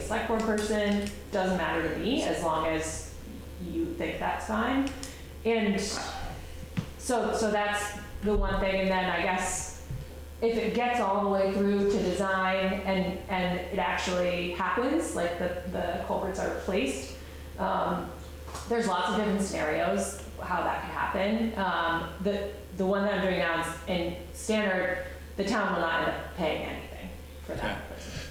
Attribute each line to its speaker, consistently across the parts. Speaker 1: select board person, doesn't matter to me, as long as you think that's fine. And so, so that's the one thing, and then I guess if it gets all the way through to design and, and it actually happens, like the, the culverts are replaced, um, there's lots of different scenarios how that could happen. Um, the, the one that I'm doing now is in standard, the town will not end up paying anything for that.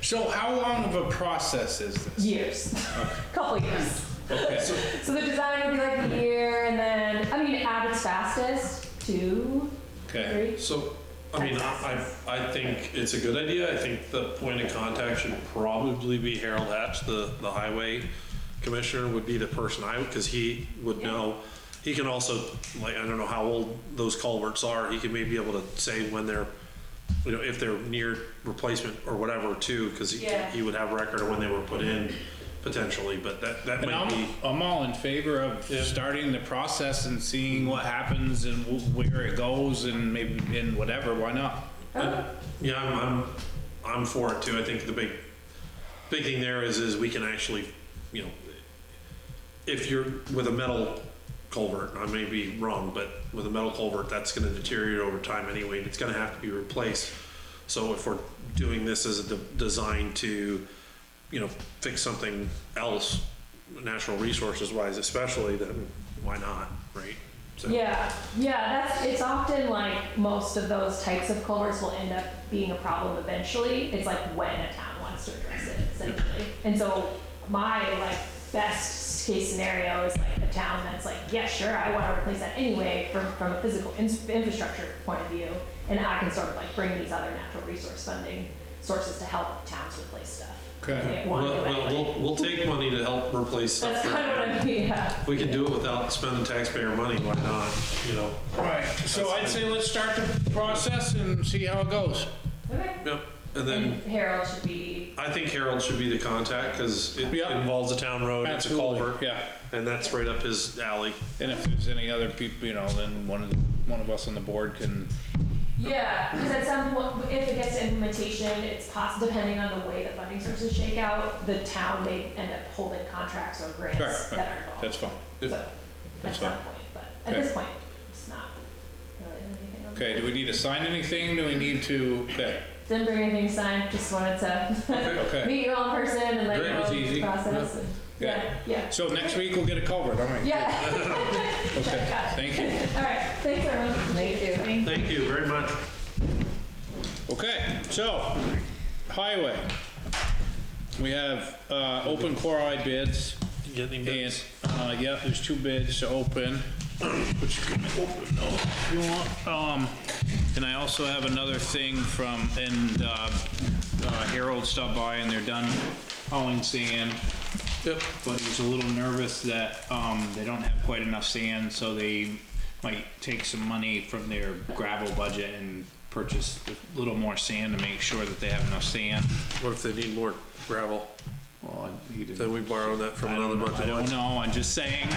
Speaker 2: So how long of a process is this?
Speaker 1: Years, couple years.
Speaker 2: Okay.
Speaker 1: So the design would be like a year, and then, I mean, Abbott's fastest, two,
Speaker 2: Okay.
Speaker 1: three.
Speaker 3: So, I mean, I, I I think it's a good idea. I think the point of contact should probably be Harold Hatch, the, the highway commissioner would be the person I, because he would know. He can also, like, I don't know how old those culverts are. He can maybe be able to say when they're, you know, if they're near replacement or whatever too, because he,
Speaker 1: Yeah.
Speaker 3: he would have record of when they were put in potentially, but that, that
Speaker 2: And
Speaker 3: might
Speaker 2: I'm,
Speaker 3: be.
Speaker 2: I'm all in favor of
Speaker 3: Yeah.
Speaker 2: starting the process and seeing what happens and wh- where it goes and maybe, and whatever, why not?
Speaker 3: Yeah, I'm, I'm, I'm for it too. I think the big, big thing there is, is we can actually, you know, if you're with a metal culvert, I may be wrong, but with a metal culvert, that's gonna deteriorate over time anyway, and it's gonna have to be replaced. So if we're doing this as a de- design to, you know, fix something else, natural resources wise especially, then why not, right? So-
Speaker 1: Yeah, yeah, that's, it's often like most of those types of culverts will end up being a problem eventually. It's like when a town wants to address it essentially. And so my like best case scenario is like a town that's like, yeah, sure, I want to replace that anyway from, from a physical in- infrastructure point of view. And I can sort of like bring these other natural resource funding sources to help towns replace stuff.
Speaker 2: Okay.
Speaker 1: They
Speaker 3: We'll,
Speaker 1: want to
Speaker 3: we'll,
Speaker 1: anyway.
Speaker 3: we'll- we'll take money to help replace stuff.
Speaker 1: That's
Speaker 3: that-
Speaker 1: kind of what I'm, yeah.
Speaker 3: If we can do it without spending taxpayer money, why not, you know?
Speaker 2: Right, so I'd say let's start the process and see how it goes.
Speaker 1: Okay.
Speaker 3: Yep,
Speaker 1: And
Speaker 3: and then
Speaker 1: Harold should be
Speaker 3: I think Harold should be the contact, because it
Speaker 2: Yeah.
Speaker 3: involves a town road, it's a culvert.
Speaker 2: Absolutely, yeah.
Speaker 3: And that's right up his alley.
Speaker 2: And if there's any other people, you know, then one of, the- one of us on the board can,
Speaker 1: Yeah, because at some point, if it gets to implementation, it's possible, depending on the way the funding sources shake out, the town may end up holding contracts or
Speaker 2: Sure,
Speaker 1: grants that are
Speaker 2: that's
Speaker 1: involved.
Speaker 2: fine.
Speaker 1: So, at
Speaker 2: That's
Speaker 1: some
Speaker 2: fine.
Speaker 1: point, but at
Speaker 2: Okay.
Speaker 1: this point, it's not really anything. on-
Speaker 2: Okay, do we need to sign anything? Do we need to, okay,
Speaker 1: Didn't bring anything signed, just wanted to
Speaker 2: okay.
Speaker 1: meet you all in person and let you
Speaker 2: Great,
Speaker 1: know
Speaker 2: it was
Speaker 1: the
Speaker 2: easy.
Speaker 1: process. and-
Speaker 2: Yeah.
Speaker 1: Yeah, yeah.
Speaker 2: So next week we'll get a culvert, all right?
Speaker 1: Yeah,
Speaker 2: Okay, thank you.
Speaker 1: all right, thanks everyone. Thank you.
Speaker 3: Thank you very much.
Speaker 2: Okay, so, highway. We have, uh, open chloride bids.
Speaker 3: You get any
Speaker 2: And,
Speaker 3: bids?
Speaker 2: uh, yeah, there's two bids to open, which you can open no, if you want. Um, and I also have another thing from, and, uh, uh, Harold stopped by and they're done hauling sand. Yep. But he was a little nervous that, um, they don't have quite enough sand, so they might take some money from their gravel budget and purchase a little more sand to make sure that they have enough sand.
Speaker 3: What if they need more gravel?
Speaker 2: Well, he didn't.
Speaker 3: Then we borrow that from
Speaker 2: I
Speaker 3: another
Speaker 2: don't, know,
Speaker 3: bunch
Speaker 2: I
Speaker 3: of
Speaker 2: don't
Speaker 3: ones.
Speaker 2: know, I'm just saying.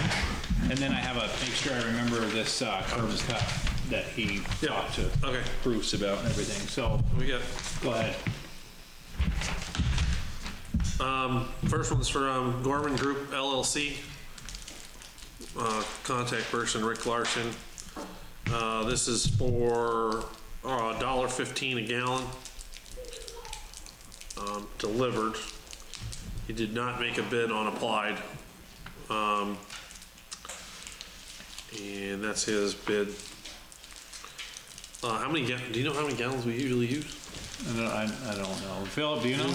Speaker 2: And then I have a, make sure I remember this uh, curb and cut that he
Speaker 3: Yeah.
Speaker 2: talked to
Speaker 3: Okay,
Speaker 2: Bruce about and everything, so,
Speaker 3: we got,
Speaker 2: go ahead.
Speaker 3: um, first one's for um, Gorman Group LLC. Uh, Contact person Rick Larson. Uh, This is for uh, $1.15 a gallon um, delivered. He did not make a bid on applied. Um, And that's his bid. Uh, How many, ga- do you know how many gallons we usually use?
Speaker 2: I don't, I- I don't know. Philip, do you know?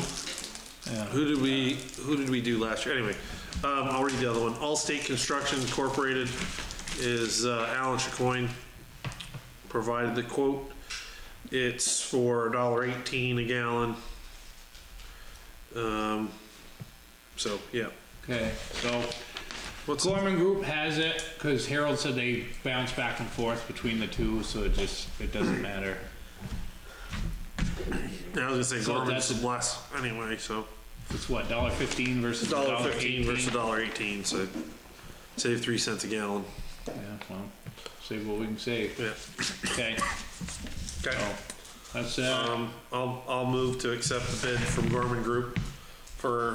Speaker 3: Who did we, who did we do last year? Anyway, um, I'll read the other one. Allstate Construction Incorporated is uh, Alan Chacoin provided the quote. It's for $1.18 a gallon. Um, so, yeah.
Speaker 2: Okay, so
Speaker 3: What's
Speaker 2: Gorman Group has it, because Harold said they bounce back and forth between the two, so it just, it doesn't matter.
Speaker 3: I was gonna say
Speaker 2: So
Speaker 3: Gorman's
Speaker 2: that's-
Speaker 3: less anyway, so
Speaker 2: It's what, dollar fifteen versus dollar
Speaker 3: dollar fifteen versus
Speaker 2: eighteen?
Speaker 3: dollar eighteen, so save three cents a gallon.
Speaker 2: Yeah, well, save what we can save.
Speaker 3: Yeah.
Speaker 2: Okay,
Speaker 3: Okay.
Speaker 2: so, that's, uh,
Speaker 3: Um, I'll, I'll move to accept the bid from Gorman Group for